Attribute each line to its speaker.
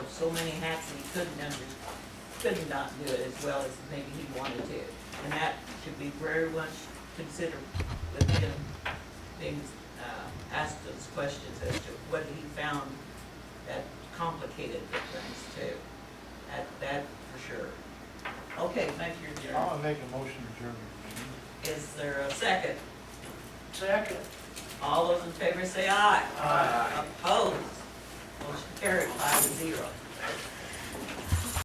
Speaker 1: so many hats and he couldn't under, could not do it as well as maybe he wanted to. And that should be very much considered with him being, uh, asked those questions as to what he found that complicated the things too. That, that for sure. Okay, thank you, Jerry.
Speaker 2: I'll make a motion to adjourn. the
Speaker 1: Is there a second?
Speaker 3: Second.
Speaker 1: All those in favor say aye.
Speaker 3: Aye.
Speaker 1: Opposed? Motion carried five to zero.